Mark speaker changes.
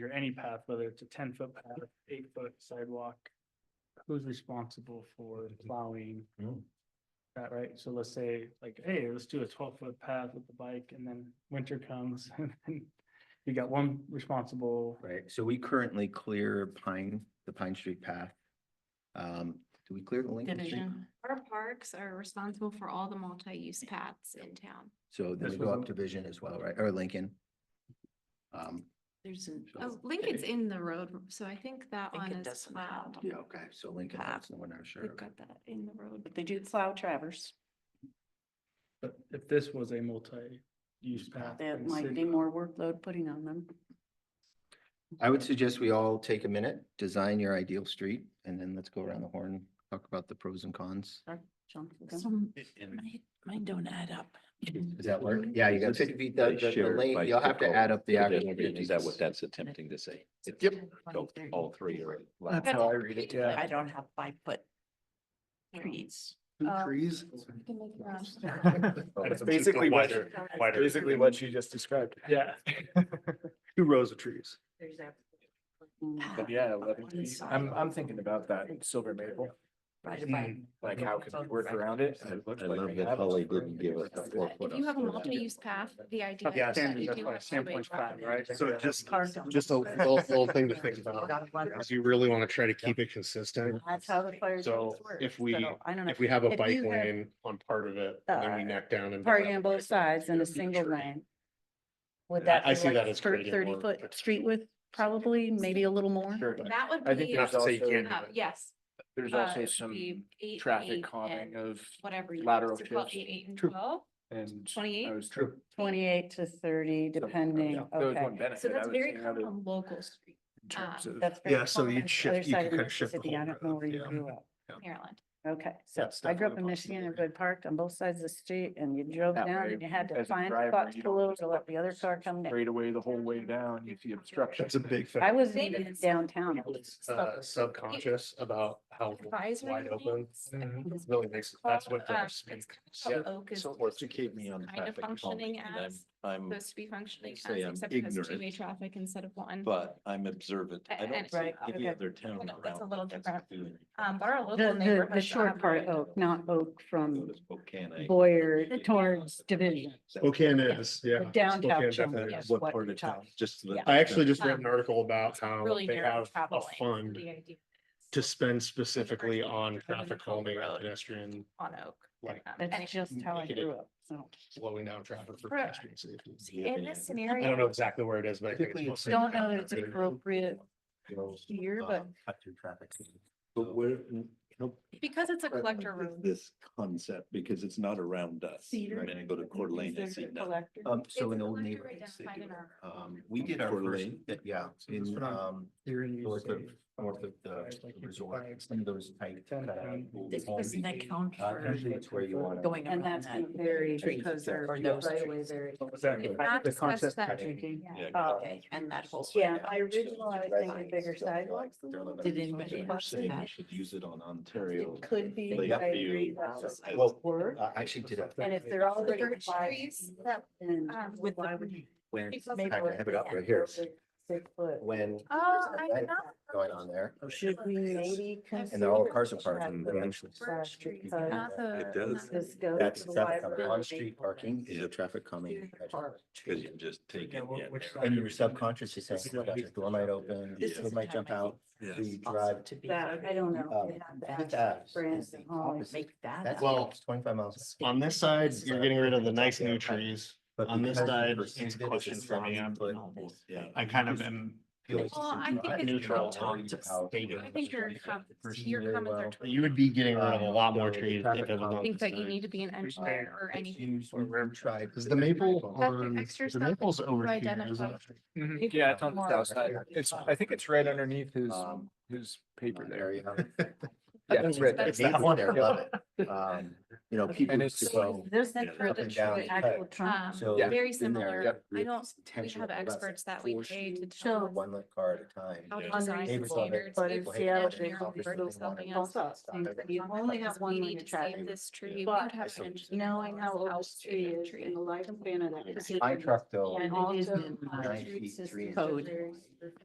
Speaker 1: or any path, whether it's a ten foot path, eight foot sidewalk. Who's responsible for
Speaker 2: Mhm.
Speaker 1: plowing
Speaker 2: Mm.
Speaker 1: that, right? So let's say like, hey, let's do a twelve foot path with the bike and then winter comes and then you got one responsible.
Speaker 2: Right, so we currently clear Pine, the Pine Street path. Um, do we clear the Lincoln Street?
Speaker 3: Division. Our parks are responsible for all the multi-use paths in town.
Speaker 2: So then
Speaker 1: This
Speaker 2: we go
Speaker 1: was
Speaker 2: up
Speaker 1: a-
Speaker 2: Division as well, right, or Lincoln? Um,
Speaker 4: There's an.
Speaker 3: Oh, Lincoln's in the road, so I think that one
Speaker 4: Lincoln
Speaker 3: is
Speaker 4: doesn't have.
Speaker 3: plowed.
Speaker 2: yeah, okay, so Lincoln,
Speaker 3: Path.
Speaker 2: that's the one I'm sure.
Speaker 3: We've
Speaker 2: of.
Speaker 3: got that in the road.
Speaker 4: But they do plow Traverse.
Speaker 1: But if this was a multi-use path. in
Speaker 4: That
Speaker 1: the
Speaker 4: might be
Speaker 1: city,
Speaker 4: more workload putting on them.
Speaker 2: I would suggest we all take a minute, design your ideal street, and then let's go around the horn, talk about the pros and cons.
Speaker 4: Jump with them.
Speaker 5: Some,
Speaker 2: And-
Speaker 5: mine, mine don't add up.
Speaker 2: Does that work?
Speaker 6: Mm-hmm.
Speaker 2: Yeah, you got fifty feet, the,
Speaker 6: They
Speaker 2: the- the
Speaker 6: share
Speaker 2: lane,
Speaker 6: by
Speaker 2: you'll have to
Speaker 6: circle,
Speaker 2: add up the
Speaker 6: but
Speaker 2: actual.
Speaker 6: then Is that what
Speaker 2: fifties.
Speaker 6: that's attempting to say? It's
Speaker 2: Yep.
Speaker 6: so All three are.
Speaker 5: That's
Speaker 2: how I read it,
Speaker 5: I don't have five foot trees.
Speaker 3: Uh,
Speaker 2: Trees.
Speaker 1: That's basically what,
Speaker 7: Basically what she just described.
Speaker 1: yeah.
Speaker 7: Two rows of trees.
Speaker 4: Mm.
Speaker 7: But yeah, eleven feet. I'm, I'm thinking about that silver maple,
Speaker 2: Hmm.
Speaker 7: like how could we work around it?
Speaker 6: I I love that Holly didn't give us the four foot.
Speaker 3: If you have a
Speaker 6: on that.
Speaker 3: multi-use path, the idea.
Speaker 1: Yeah,
Speaker 3: is that
Speaker 1: standard,
Speaker 3: you
Speaker 1: that's
Speaker 3: do
Speaker 1: why
Speaker 3: have
Speaker 1: standpoint's
Speaker 3: somebody
Speaker 1: fine, right?
Speaker 7: So just-
Speaker 5: Just
Speaker 7: a little, little thing to think
Speaker 5: about,
Speaker 7: Cause you really wanna try to keep it consistent.
Speaker 4: That's how the fire.
Speaker 7: Hmm. So
Speaker 4: service works,
Speaker 7: if we-
Speaker 4: so I don't know.
Speaker 7: If we have a
Speaker 4: If
Speaker 7: bike
Speaker 4: you have,
Speaker 7: lane on part of it, then we
Speaker 4: uh,
Speaker 7: neck down and.
Speaker 4: Parking on both sides in a single lane. Would
Speaker 7: Yeah,
Speaker 4: that?
Speaker 7: I
Speaker 4: be
Speaker 7: see
Speaker 4: like
Speaker 7: that as
Speaker 4: thir-
Speaker 7: creating
Speaker 4: Thirty
Speaker 7: more-
Speaker 4: foot street width, probably, maybe a little more.
Speaker 7: Sure,
Speaker 3: else.
Speaker 7: but
Speaker 3: That would
Speaker 7: I think
Speaker 3: be.
Speaker 7: you have to say you
Speaker 3: also-
Speaker 7: can't do
Speaker 3: uh,
Speaker 7: it.
Speaker 3: Yes.
Speaker 8: There's
Speaker 3: uh,
Speaker 8: also
Speaker 3: it
Speaker 8: some
Speaker 3: would be eight,
Speaker 8: traffic
Speaker 3: eight,
Speaker 8: calming
Speaker 3: and
Speaker 8: of,
Speaker 3: Whatever. you-
Speaker 8: lateral
Speaker 3: so twelve,
Speaker 8: shifts.
Speaker 3: Eight, eight and
Speaker 7: True.
Speaker 3: twelve,
Speaker 8: and I
Speaker 3: twenty-eight.
Speaker 8: was true.
Speaker 4: Twenty-eight to thirty,
Speaker 7: uh,
Speaker 4: depending,
Speaker 8: There was
Speaker 4: okay.
Speaker 8: one benefit.
Speaker 3: So
Speaker 8: I
Speaker 3: that's
Speaker 8: would
Speaker 3: very
Speaker 8: say out
Speaker 3: common
Speaker 8: of-
Speaker 3: on local streets,
Speaker 8: in terms
Speaker 3: um,
Speaker 8: of-
Speaker 4: That's very
Speaker 7: Yeah, so
Speaker 4: common
Speaker 7: you'd
Speaker 4: on the
Speaker 7: shift-
Speaker 4: other
Speaker 7: you
Speaker 4: side
Speaker 7: could
Speaker 4: of
Speaker 7: kinda shift the um,
Speaker 4: Mississippi. I
Speaker 7: whole
Speaker 4: don't know
Speaker 7: road,
Speaker 4: where you
Speaker 7: yeah.
Speaker 4: grew up.
Speaker 3: Maryland.
Speaker 4: Okay, so
Speaker 7: That's
Speaker 4: I grew up
Speaker 7: definitely
Speaker 4: in
Speaker 7: a
Speaker 4: Michigan, everybody parked on both sides of the street and you drove
Speaker 8: That
Speaker 4: down
Speaker 8: way,
Speaker 4: and you had to
Speaker 8: as a
Speaker 4: find a
Speaker 8: driver,
Speaker 4: spot to
Speaker 8: you don't
Speaker 4: pull over
Speaker 8: just
Speaker 4: to let the other car come down.
Speaker 8: Straight away the whole way down, you see obstruction.
Speaker 7: That's a big thing.
Speaker 4: I wasn't
Speaker 3: Same
Speaker 4: even in
Speaker 3: as-
Speaker 4: downtown. I was
Speaker 7: It's, uh, subconscious about how
Speaker 3: Advisory
Speaker 7: wide open.
Speaker 3: lanes, I think
Speaker 7: It
Speaker 3: is
Speaker 7: Really makes, that's
Speaker 3: called,
Speaker 7: what
Speaker 3: um,
Speaker 7: drives me.
Speaker 3: It's kind of
Speaker 7: Yeah.
Speaker 3: called Oak is
Speaker 6: So
Speaker 3: supposed to
Speaker 6: educate me on
Speaker 3: Kind of
Speaker 6: traffic. calming,
Speaker 3: functioning
Speaker 6: and I'm-
Speaker 3: as,
Speaker 6: I'm,
Speaker 3: supposed to be functioning as,
Speaker 6: say I'm
Speaker 3: except it has
Speaker 6: ignorant,
Speaker 3: two-way traffic instead of one.
Speaker 6: but I'm observant. I
Speaker 3: And-
Speaker 6: don't
Speaker 4: Right,
Speaker 6: see any
Speaker 4: okay.
Speaker 6: other town
Speaker 3: Well,
Speaker 6: around.
Speaker 3: that's a little
Speaker 6: that's
Speaker 3: different.
Speaker 6: doing it.
Speaker 3: Um, but our
Speaker 4: The,
Speaker 3: local
Speaker 4: the,
Speaker 3: neighborhood.
Speaker 4: the short part of Oak, not Oak
Speaker 6: Go
Speaker 4: from
Speaker 6: to Spokane, I-
Speaker 4: Boyer towards Division.
Speaker 7: Spokane is, yeah.
Speaker 4: The downtown
Speaker 7: Spokane
Speaker 4: chunk,
Speaker 7: definitely
Speaker 4: yeah.
Speaker 7: is.
Speaker 6: What
Speaker 4: what
Speaker 6: part
Speaker 4: you're
Speaker 6: of town?
Speaker 4: talking-
Speaker 6: Just. the-
Speaker 4: yeah.
Speaker 7: I actually just read
Speaker 3: Um,
Speaker 7: an article about how
Speaker 3: Really
Speaker 7: they
Speaker 3: narrow
Speaker 7: have
Speaker 3: travel
Speaker 7: a
Speaker 3: lane.
Speaker 7: fund
Speaker 3: The idea is
Speaker 7: to spend specifically on
Speaker 3: Driving
Speaker 7: traffic
Speaker 3: down the
Speaker 7: calming and
Speaker 3: road.
Speaker 7: pedestrian,
Speaker 3: On Oak.
Speaker 7: like
Speaker 3: Um, and-
Speaker 4: That's just how I
Speaker 7: Make it
Speaker 4: grew up, so.
Speaker 7: slowing down traffic for
Speaker 3: Right.
Speaker 7: pedestrian safety.
Speaker 6: Yeah.
Speaker 3: In this
Speaker 7: I don't know
Speaker 3: scenario,
Speaker 7: exactly where it is, but I think it's.
Speaker 6: Typically, it's-
Speaker 7: mostly-
Speaker 4: Don't know that it's appropriate here, but
Speaker 2: Um, Cut through traffic.
Speaker 6: But where, you know,
Speaker 3: because it's a
Speaker 6: Right,
Speaker 3: collector
Speaker 6: like
Speaker 3: road,
Speaker 6: This concept, because it's not around us.
Speaker 4: Cedar.
Speaker 6: Right, And I go to Coeur d'Alene, I see nothing.
Speaker 2: Um, so
Speaker 3: It's
Speaker 2: in
Speaker 3: a
Speaker 2: old
Speaker 3: collector
Speaker 2: neighborhoods, they
Speaker 3: identified
Speaker 2: do
Speaker 3: in
Speaker 2: it.
Speaker 3: our-
Speaker 2: Um, we did our
Speaker 6: Coeur
Speaker 2: first,
Speaker 6: d'Alene?
Speaker 2: that- yeah,
Speaker 1: So this
Speaker 2: in,
Speaker 1: one I'm
Speaker 2: um,
Speaker 1: Here in you
Speaker 2: north of,
Speaker 1: say.
Speaker 2: north of
Speaker 1: five,
Speaker 2: the
Speaker 1: like you
Speaker 2: resort,
Speaker 1: five,
Speaker 2: some of those tight.
Speaker 1: ten
Speaker 2: cut
Speaker 1: pound.
Speaker 2: out
Speaker 5: This
Speaker 2: homes.
Speaker 5: doesn't account
Speaker 2: Uh,
Speaker 5: for
Speaker 2: usually it's where you want.
Speaker 5: going
Speaker 4: And
Speaker 5: around
Speaker 4: that's
Speaker 5: that.
Speaker 4: very
Speaker 2: Trees,
Speaker 4: because they're
Speaker 2: exactly.
Speaker 5: Or those
Speaker 4: right away
Speaker 5: trees.
Speaker 4: very.
Speaker 1: What was that?
Speaker 3: It's
Speaker 1: The
Speaker 3: not
Speaker 1: the
Speaker 3: discussed
Speaker 1: concept
Speaker 3: that-
Speaker 1: thinking?
Speaker 3: Yeah.
Speaker 6: Yeah.
Speaker 4: Uh,
Speaker 5: Okay, and that whole.
Speaker 4: Yeah, my original, I was thinking bigger sidewalks. a little bit.
Speaker 5: Did anybody
Speaker 6: They're
Speaker 5: watch
Speaker 6: saying we
Speaker 5: that?
Speaker 6: should use it on Ontario.
Speaker 4: It could be.
Speaker 6: Lake
Speaker 4: but I
Speaker 6: View
Speaker 4: agree that
Speaker 6: as-
Speaker 4: it
Speaker 6: well,
Speaker 4: works.
Speaker 2: I actually did a.
Speaker 4: And if they're all
Speaker 3: the
Speaker 4: already
Speaker 3: birch
Speaker 4: five
Speaker 3: trees
Speaker 4: feet,
Speaker 3: that,
Speaker 4: then
Speaker 3: um,
Speaker 4: with
Speaker 3: why
Speaker 4: the-
Speaker 3: would
Speaker 2: When,
Speaker 3: Because-
Speaker 4: maybe
Speaker 2: I
Speaker 4: we're
Speaker 2: have it up
Speaker 4: looking
Speaker 2: right
Speaker 4: at
Speaker 2: here.
Speaker 4: over Six foot.
Speaker 2: when
Speaker 3: oh,
Speaker 4: There's
Speaker 3: I
Speaker 4: a
Speaker 3: did not.
Speaker 2: going on there,
Speaker 4: Should we maybe consider?
Speaker 2: and they're all cars apart
Speaker 4: that
Speaker 2: and
Speaker 4: the
Speaker 2: they're actually.
Speaker 3: Birch
Speaker 4: side
Speaker 3: trees,
Speaker 4: because
Speaker 3: not the-
Speaker 6: It does.
Speaker 3: not
Speaker 4: This goes.
Speaker 2: That's
Speaker 4: to the
Speaker 2: traffic coming.
Speaker 4: liability
Speaker 2: On-street parking is
Speaker 4: for
Speaker 2: a traffic calming.
Speaker 4: the park.
Speaker 6: Cause you just take
Speaker 1: Yeah,
Speaker 6: it.
Speaker 1: wh-
Speaker 6: yeah.
Speaker 1: which
Speaker 2: And your
Speaker 1: side?
Speaker 2: subconscious is saying, "Oh my gosh, the door might open,
Speaker 5: This
Speaker 2: it
Speaker 5: is
Speaker 2: might
Speaker 5: the
Speaker 2: jump
Speaker 5: time I
Speaker 2: out.
Speaker 5: think
Speaker 2: so you
Speaker 5: also
Speaker 2: drive-
Speaker 5: to be-
Speaker 4: That, I don't
Speaker 2: Um,
Speaker 4: know. if we have
Speaker 2: Fifth
Speaker 4: to ask
Speaker 2: Ave is
Speaker 4: friends
Speaker 2: the
Speaker 4: and all.
Speaker 2: opposite.
Speaker 5: Make that
Speaker 2: That's
Speaker 5: up.
Speaker 7: Well,
Speaker 2: it's twenty-five miles.
Speaker 7: On this side, you're getting rid of the nice new trees.
Speaker 2: But
Speaker 7: on this
Speaker 2: because
Speaker 7: side,
Speaker 2: you
Speaker 7: it's
Speaker 2: perceive it as a
Speaker 7: questions for me,
Speaker 2: 70
Speaker 7: I'm-
Speaker 2: foot
Speaker 5: all this.
Speaker 6: Yeah.
Speaker 7: I kind of am.
Speaker 2: feels
Speaker 3: Well, I
Speaker 2: to
Speaker 3: think
Speaker 2: drive.
Speaker 3: it's
Speaker 7: neutral.
Speaker 2: It's all
Speaker 5: Just-
Speaker 2: about-
Speaker 7: Bigger.
Speaker 3: I think your comments,
Speaker 2: Perceive
Speaker 3: your
Speaker 2: very
Speaker 3: comments are.
Speaker 2: well.
Speaker 3: totally-
Speaker 7: You would be getting rid of a lot more trees. if it was
Speaker 3: I
Speaker 7: on
Speaker 3: think
Speaker 7: this
Speaker 3: that you
Speaker 7: side.
Speaker 3: need to be an engineer or anything.
Speaker 2: Or river tribe.
Speaker 7: Is the maple
Speaker 3: the
Speaker 7: on,
Speaker 3: extra
Speaker 7: the
Speaker 3: stuff
Speaker 7: maple's over
Speaker 3: to
Speaker 7: here, isn't
Speaker 3: identify.
Speaker 7: it?
Speaker 2: mhm.
Speaker 8: Yeah, it's on
Speaker 3: More-
Speaker 8: the south side. It's, I think it's right underneath his,
Speaker 2: Um,
Speaker 8: his paper there.
Speaker 2: Area.
Speaker 8: Yeah, it's right there.
Speaker 2: Um, It's
Speaker 7: It's
Speaker 2: that
Speaker 7: that
Speaker 2: one there, love it. Um, you know, people
Speaker 8: And
Speaker 2: used to
Speaker 8: it's-
Speaker 2: go.
Speaker 4: There's
Speaker 6: Yeah,
Speaker 4: that for
Speaker 6: up
Speaker 4: the
Speaker 2: and down
Speaker 4: tree,
Speaker 2: the
Speaker 4: actual
Speaker 2: cut.
Speaker 4: trunk.
Speaker 3: Um,
Speaker 2: So
Speaker 8: Yeah.
Speaker 3: Very
Speaker 2: in there,
Speaker 3: similar.
Speaker 2: yep,
Speaker 3: I don't, we
Speaker 2: tension
Speaker 3: have
Speaker 2: of less
Speaker 3: experts that we
Speaker 2: force.
Speaker 3: pay to
Speaker 4: So-
Speaker 3: determine
Speaker 2: One lit car at a time.
Speaker 3: how to
Speaker 6: Yeah.
Speaker 3: design
Speaker 2: Neighbors love it.
Speaker 3: standards.
Speaker 4: But
Speaker 3: It's
Speaker 4: in
Speaker 3: an
Speaker 4: Seattle,
Speaker 3: engineer
Speaker 4: there's
Speaker 3: versus
Speaker 2: only
Speaker 3: something
Speaker 2: one
Speaker 3: else.
Speaker 4: Both
Speaker 3: Thanks
Speaker 4: sides.
Speaker 3: for the
Speaker 4: You
Speaker 3: comment.
Speaker 4: only have
Speaker 3: We
Speaker 4: one
Speaker 3: need
Speaker 4: lane of
Speaker 3: to save
Speaker 4: traffic.
Speaker 3: this tree. We
Speaker 4: But-
Speaker 3: would have
Speaker 2: So-
Speaker 3: an engineer
Speaker 4: Knowing how
Speaker 3: tell us
Speaker 4: old
Speaker 3: to
Speaker 4: the tree
Speaker 3: the
Speaker 4: is
Speaker 3: tree.
Speaker 4: and the lifespan of that.
Speaker 5: It's
Speaker 4: tree.
Speaker 2: My truck though,
Speaker 4: And
Speaker 5: And it
Speaker 4: also
Speaker 5: is in
Speaker 4: our
Speaker 2: nine
Speaker 4: street
Speaker 2: feet, three
Speaker 4: system
Speaker 2: inches.
Speaker 4: code.
Speaker 5: Code.